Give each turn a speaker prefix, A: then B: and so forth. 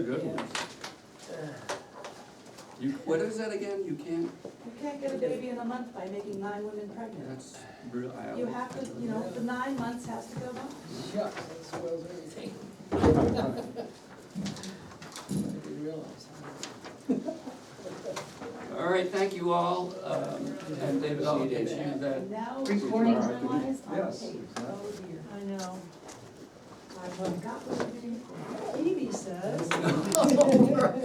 A: Good ones. You, what is that again? You can't,
B: You can't get a baby in a month by making nine women pregnant.
A: that's real, I.
B: You have to, you know, the nine months has to go by.
C: Shucks, that spoils everything. I didn't realize.
A: All right, thank you all, um, and David, I'll get you that.
B: And now,
A: Recording.
B: timelines on
D: Yes,
B: tape. Oh dear.
C: I know.
B: I forgot what Phoebe says.